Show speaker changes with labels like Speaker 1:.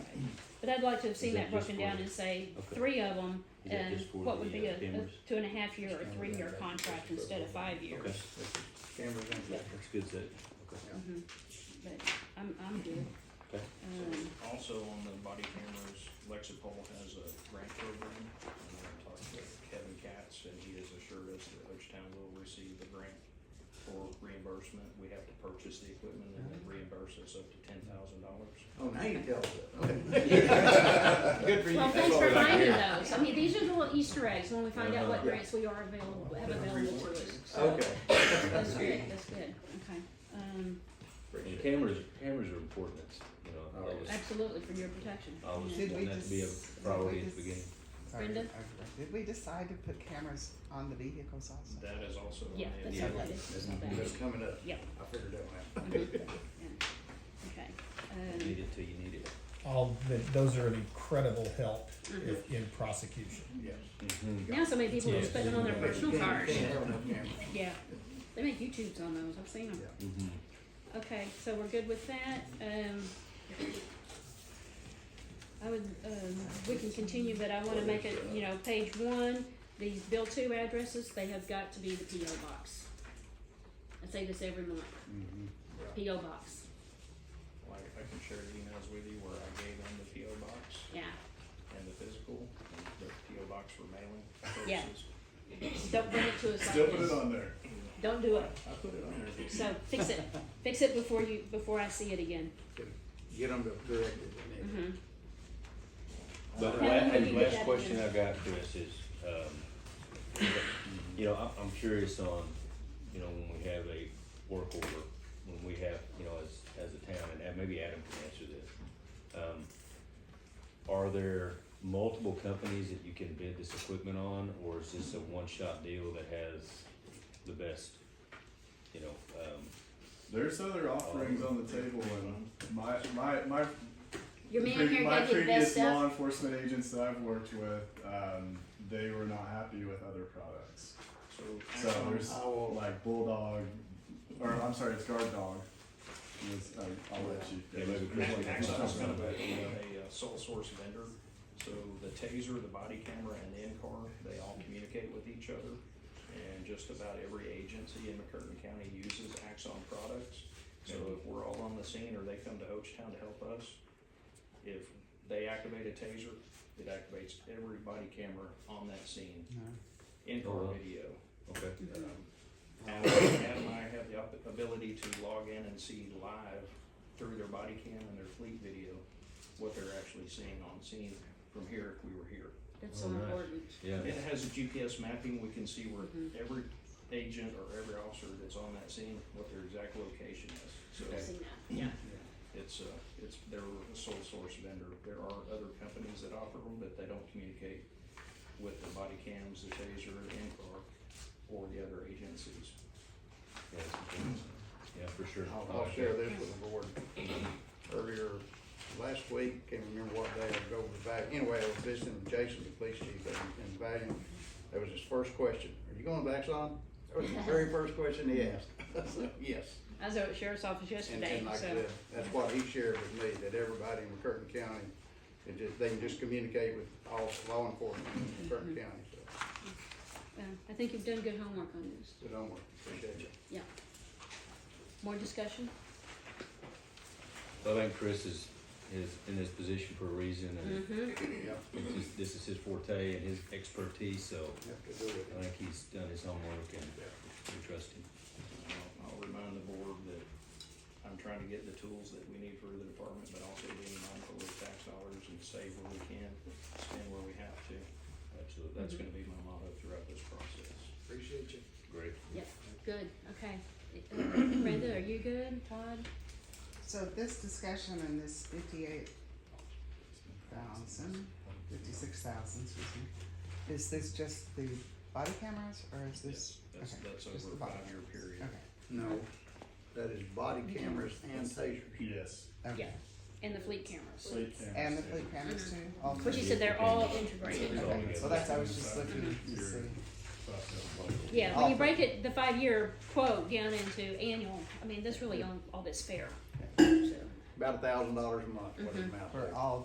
Speaker 1: But I'd like to have seen
Speaker 2: Is
Speaker 1: that
Speaker 2: that just
Speaker 1: broken down
Speaker 2: for-
Speaker 1: and say,
Speaker 2: okay.
Speaker 1: three of them,
Speaker 2: Is that
Speaker 1: and
Speaker 2: just for
Speaker 1: what would
Speaker 2: the,
Speaker 1: be
Speaker 2: uh,
Speaker 1: a, a
Speaker 2: cameras?
Speaker 1: two and a half year or three year contract instead of five years.
Speaker 2: Okay,
Speaker 3: Cameras and
Speaker 2: that's good, that, okay.
Speaker 1: Mhm. But I'm, I'm good.
Speaker 2: Okay.
Speaker 1: Um,
Speaker 4: Also on the body cameras, Lexipol has a grant program, and I talked to Kevin Katz, and he has assured us that Hochtown will receive the grant for reimbursement. We have to purchase the equipment and then reimburse us up to ten thousand dollars.
Speaker 3: Oh, now you tell us.
Speaker 5: Good for you.
Speaker 1: Well, thanks
Speaker 5: That's all
Speaker 1: for
Speaker 5: I got
Speaker 1: finding
Speaker 5: here.
Speaker 1: those. I mean, these are the little Easter eggs when we find out what
Speaker 3: Uh-huh. Yeah.
Speaker 1: grants we are available, have available to us. So,
Speaker 3: Okay.
Speaker 1: That's good, that's good, okay. Um,
Speaker 2: And cameras, cameras are important, it's, you know, I
Speaker 3: Oh,
Speaker 2: was,
Speaker 1: absolutely for your protection.
Speaker 2: I was
Speaker 1: Yeah.
Speaker 6: Did we
Speaker 2: wanting that to be
Speaker 6: just-
Speaker 2: a
Speaker 6: did
Speaker 2: priority
Speaker 6: we
Speaker 2: at the beginning.
Speaker 6: Sorry,
Speaker 1: Brenda?
Speaker 6: I- Did we decide to put cameras on the vehicles also?
Speaker 4: That is also on
Speaker 1: Yeah,
Speaker 4: the
Speaker 1: that's
Speaker 2: Yeah.
Speaker 1: not bad, that's not bad.
Speaker 3: That's coming up.
Speaker 1: Yeah.
Speaker 3: I figured that one out.
Speaker 1: Mhm. Yeah. Okay,
Speaker 2: You
Speaker 1: um,
Speaker 2: need it till you need it.
Speaker 7: all, that, those are an incredible help if in prosecution.
Speaker 3: Yes.
Speaker 2: Mm-hmm.
Speaker 1: now so many people are
Speaker 7: Yeah.
Speaker 1: spending on their personal
Speaker 3: Yeah,
Speaker 1: cars.
Speaker 3: you can't have enough cameras.
Speaker 1: Yeah, they make YouTubes on those, I've seen them.
Speaker 2: Mm-hmm.
Speaker 1: Okay, so we're good with that, um. I would, um, we can continue, but I wanna make it, you know, page one, these bill two addresses, they have got to be the PO box. I say this every month,
Speaker 3: Mm-hmm. Yeah.
Speaker 1: PO box,
Speaker 4: Like, I can share the emails with you where I gave them the PO box
Speaker 1: yeah,
Speaker 4: and the physical, and the PO box for mailing
Speaker 1: Yeah.
Speaker 4: purposes.
Speaker 1: don't bring it to us
Speaker 3: Still
Speaker 1: like
Speaker 3: put it
Speaker 1: this,
Speaker 3: on there.
Speaker 1: don't do it,
Speaker 3: I put it on there.
Speaker 1: so fix it, fix it before you, before I see it again,
Speaker 3: Get them to correct it. and
Speaker 1: mhm,
Speaker 2: But
Speaker 1: How
Speaker 2: la-
Speaker 1: long have you
Speaker 2: and
Speaker 1: been
Speaker 2: last
Speaker 1: at
Speaker 2: question
Speaker 1: this?
Speaker 2: I've got, Chris, is, um, you know, I'm, I'm curious on, you know, when we have a work order, when we have, you know, as, as a town, and Ad- maybe Adam can answer this. Um, are there multiple companies that you can bid this equipment on, or is this a one-shot deal that has the best, you know, um,
Speaker 8: There's other offerings on the table, and my my my,
Speaker 1: your man here
Speaker 8: my
Speaker 1: gave you the best
Speaker 8: previous law
Speaker 1: stuff,
Speaker 8: enforcement agents that I've worked with, um, they were not happy with other products.
Speaker 4: So,
Speaker 8: So there's
Speaker 3: I will-
Speaker 8: like bulldog, or I'm sorry, it's guard dog. Was, I, I'll let you.
Speaker 2: Yeah, maybe Chris
Speaker 4: Ac-
Speaker 2: can-
Speaker 4: Actually, it's kind of a, a uh, sole source vendor, so the taser, the body camera, and the in-car, they all communicate with each other. And just about every agency in McCurtain County uses Axon products, so if we're all on the scene or they come to Ochetown to help us, if they activate a taser, it activates every body camera on that scene,
Speaker 2: Oh,
Speaker 6: No.
Speaker 2: wow.
Speaker 4: in-car video.
Speaker 2: okay?
Speaker 4: Um, Adam Adam and I have the op- ability to log in and see live through their body cam and their fleet video what they're actually seeing on scene from here if we were here.
Speaker 1: that's so
Speaker 2: Oh, nice.
Speaker 1: important,
Speaker 2: Yeah,
Speaker 4: It has a GPS mapping, we can see where every agent or every officer that's on that scene, what their exact location is. So
Speaker 1: I've seen that, yeah.
Speaker 4: it's, uh, it's, they're a sole source vendor. There are other companies that offer them, but they don't communicate with the body cams, the taser, in-car, or the other agencies.
Speaker 2: yeah, it's important. yeah, for sure.
Speaker 3: I'll, I'll share this with the board. Earlier, last week, can't remember what day, I was over to Valiant, anyway, I was visiting Jason, the police chief in, in Valiant. That was his first question, are you going to Exxon? That was the very first question he asked. I said, Yes.
Speaker 1: I was over at sheriff's office
Speaker 3: And,
Speaker 1: yesterday,
Speaker 3: and like
Speaker 1: so,
Speaker 3: that, that's what he shared with me, that everybody in McCurtain County, it just, they can just communicate with all law enforcement in McCurtain County, so,
Speaker 1: uh, I think you've done good homework on this,
Speaker 3: so don't worry, appreciate you.
Speaker 1: yeah. More discussion?
Speaker 2: I think Chris is, is in this position for a reason, and
Speaker 1: Mm-hmm.
Speaker 3: Yeah,
Speaker 2: it's his- this is his forte and his expertise, so
Speaker 3: have to do it.
Speaker 2: I think he's done his homework and we trust him.
Speaker 4: Uh, I'll- I'll remind the board that I'm trying to get the tools that we need for the department, but also being mindful of tax dollars and save where we can, spend where we have to.
Speaker 2: Absolutely,
Speaker 4: That's
Speaker 6: Mm-hmm.
Speaker 4: gonna be my motto throughout this process.
Speaker 3: Appreciate you.
Speaker 2: great.
Speaker 1: Yep, good, okay. Uh, Brenda, are you good, Todd?
Speaker 6: So this discussion and this fifty-eight thousand, fifty-six thousand, excuse me, is this just the body cameras or is this?
Speaker 4: That's,
Speaker 6: okay,
Speaker 4: that's
Speaker 6: just
Speaker 4: over a
Speaker 6: the body
Speaker 4: five-year
Speaker 6: cameras.
Speaker 4: period.
Speaker 6: Okay,
Speaker 3: No, that is body cameras and tasers.
Speaker 8: Yes,
Speaker 1: Yeah.
Speaker 6: okay,
Speaker 1: And the fleet cameras,
Speaker 8: plate cameras.
Speaker 6: and the fleet cameras too, all
Speaker 1: which
Speaker 6: three?
Speaker 1: you said they're all integrated.
Speaker 6: Okay, well, that's, I was just looking to
Speaker 8: Your-
Speaker 6: see,
Speaker 1: Yeah, when you break it, the five-year quote down into annual, I mean, that's really all, all that's fair, so.
Speaker 3: About a thousand dollars a month, what it amounts to.
Speaker 6: for all